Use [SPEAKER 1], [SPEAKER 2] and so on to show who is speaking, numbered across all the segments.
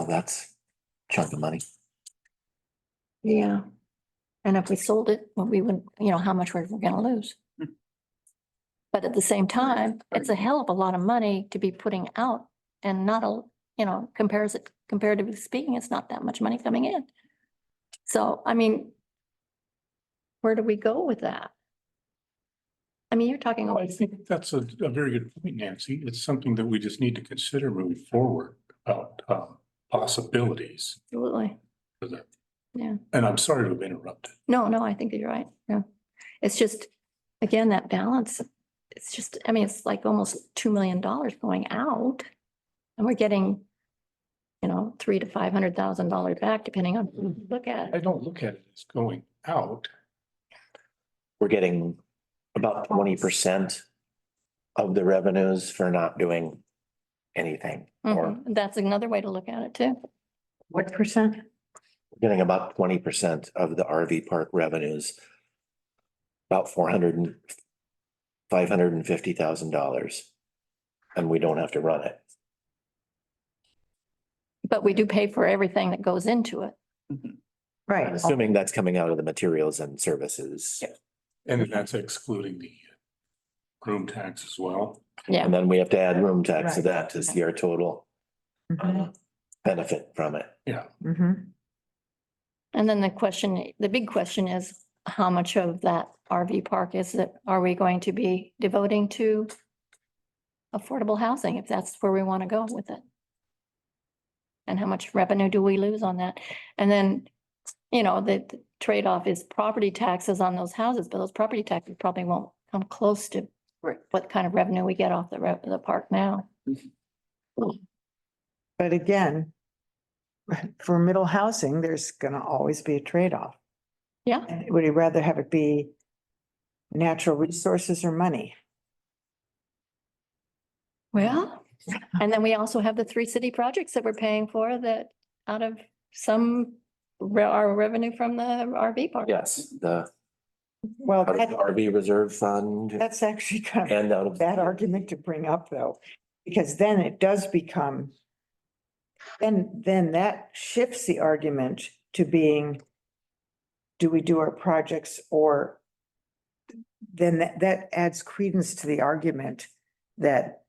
[SPEAKER 1] Oh, that's a chunk of money.
[SPEAKER 2] Yeah. And if we sold it, well, we wouldn't, you know, how much we're we're gonna lose.
[SPEAKER 3] Hmm.
[SPEAKER 2] But at the same time, it's a hell of a lot of money to be putting out and not a, you know, compares it, comparatively speaking, it's not that much money coming in. So, I mean, where do we go with that? I mean, you're talking,
[SPEAKER 4] Well, I think that's a, a very good point, Nancy. It's something that we just need to consider moving forward about, um, possibilities.
[SPEAKER 2] absolutely.
[SPEAKER 4] for that.
[SPEAKER 2] Yeah.
[SPEAKER 4] And I'm sorry to have interrupted.
[SPEAKER 2] No, no, I think that you're right. Yeah. It's just, again, that balance. It's just, I mean, it's like almost two million dollars going out. And we're getting, you know, three to five hundred thousand dollars back depending on who you look at.
[SPEAKER 4] I
[SPEAKER 2] it.
[SPEAKER 4] don't look at it as going out.
[SPEAKER 1] We're getting about twenty percent of the revenues for not doing anything. Or
[SPEAKER 2] Mhm. That's another way to look at it too.
[SPEAKER 5] What percent?
[SPEAKER 1] getting about twenty percent of the RV park revenues. About four hundred and five hundred and fifty thousand dollars. And we don't have to run it.
[SPEAKER 2] But we do pay for everything that goes into it.
[SPEAKER 1] I'm
[SPEAKER 5] Right.
[SPEAKER 1] assuming that's coming out of the materials and services.
[SPEAKER 4] And then that's excluding the room tax as well.
[SPEAKER 2] Yeah.
[SPEAKER 1] And then we have to add room tax to
[SPEAKER 5] Right. Mm-hmm.
[SPEAKER 1] that to see our total uh, benefit from it.
[SPEAKER 5] Mhm.
[SPEAKER 2] And then the question, the big question is how much of that RV park is that, are we going to be devoting to affordable housing, if that's where we want to go with it? And how much revenue do we lose on that? And then, you know, the the trade-off is property taxes on those houses, but those property taxes probably won't come close to
[SPEAKER 3] Right.
[SPEAKER 2] what kind of revenue we get off the, re- the park now.
[SPEAKER 5] But again, for middle housing, there's gonna always be a trade-off.
[SPEAKER 2] Yeah.
[SPEAKER 5] And Would you rather have it be natural resources or money?
[SPEAKER 2] Well, and then we also have the three city projects that we're paying for that out of some re- our revenue from the RV park.
[SPEAKER 1] Yes, the
[SPEAKER 5] Well,
[SPEAKER 1] out of the
[SPEAKER 5] that,
[SPEAKER 1] RV reserve fund
[SPEAKER 5] that's actually kind of
[SPEAKER 1] and um, out
[SPEAKER 5] a
[SPEAKER 1] of.
[SPEAKER 5] bad argument to bring up though, because then it does become, then, then that shifts the argument to being, do we do our projects or then that, that adds credence to the argument that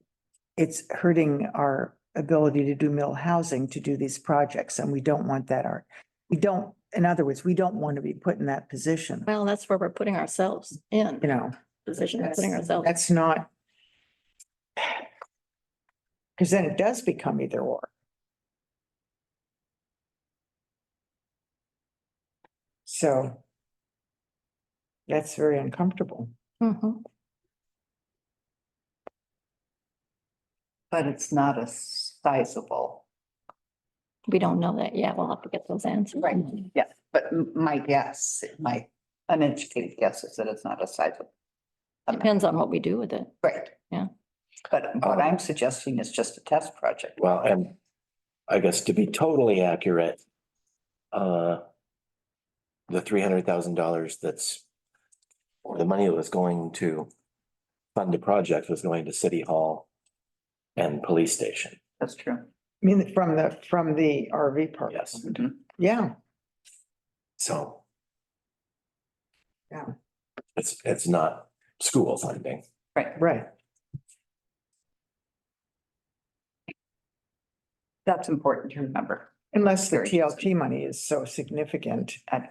[SPEAKER 5] it's hurting our ability to do middle housing to do these projects and we don't want that art. We don't, in other words, we don't want to be put in that position,
[SPEAKER 2] Well, that's where we're putting ourselves
[SPEAKER 5] you
[SPEAKER 2] in,
[SPEAKER 5] know?
[SPEAKER 2] position of putting
[SPEAKER 5] That's-
[SPEAKER 2] ourselves.
[SPEAKER 5] That's not. Cause then it does become either or. So. That's very uncomfortable.
[SPEAKER 2] Mhm.
[SPEAKER 3] But it's not a sizable.
[SPEAKER 2] We don't know that yet. We'll have to get those answers.
[SPEAKER 3] Yeah, but m- my guess, my uneducated guess is that it's not a sizable. amount.
[SPEAKER 2] Depends on what we do with it.
[SPEAKER 3] Right.
[SPEAKER 2] Yeah.
[SPEAKER 3] But what I'm suggesting is just a test project.
[SPEAKER 1] Well, and I guess to be totally accurate, uh, the three hundred thousand dollars that's or the money that was going to fund the project was going to city hall and police station.
[SPEAKER 3] That's true.
[SPEAKER 5] I mean, from the, from the RV park.
[SPEAKER 1] Yes,
[SPEAKER 3] Mm-hmm.
[SPEAKER 5] Yeah,
[SPEAKER 1] so.
[SPEAKER 5] Yeah.
[SPEAKER 1] It's, it's not school funding.
[SPEAKER 3] Right.
[SPEAKER 5] right.
[SPEAKER 3] That's important to remember.
[SPEAKER 5] Unless the
[SPEAKER 3] Very
[SPEAKER 5] TLT money is so significant,
[SPEAKER 3] I-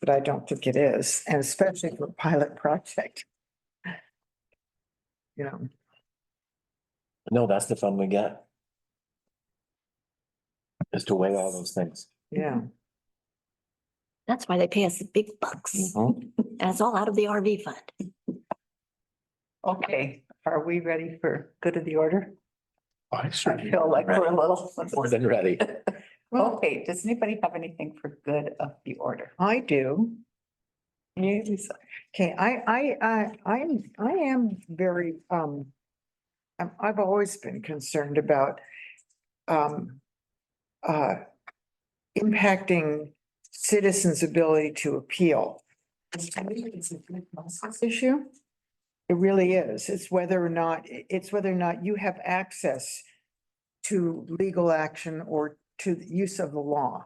[SPEAKER 5] but I don't think it is, and especially for a pilot project. You know,
[SPEAKER 1] No, that's the fun we get. Is to weigh all those things.
[SPEAKER 5] yeah.
[SPEAKER 2] That's why they pay us the big bucks.
[SPEAKER 5] Mm-hmm.
[SPEAKER 2] And it's all out of the RV fund.
[SPEAKER 3] Okay, are we ready for good of the order?
[SPEAKER 4] I
[SPEAKER 3] I
[SPEAKER 4] certainly,
[SPEAKER 3] feel like we're a little.
[SPEAKER 1] More than ready.
[SPEAKER 3] Okay, does anybody have anything for good of the order?
[SPEAKER 5] I do.
[SPEAKER 3] You, Lisa?
[SPEAKER 5] Okay, I, I, I, I'm, I am very, um, I'm, I've always been concerned about, um, uh, impacting citizens' ability to appeal. I mean, it's a good process Issue? It really is. It's whether or not, it's whether or not you have access to legal action or to the use of the law.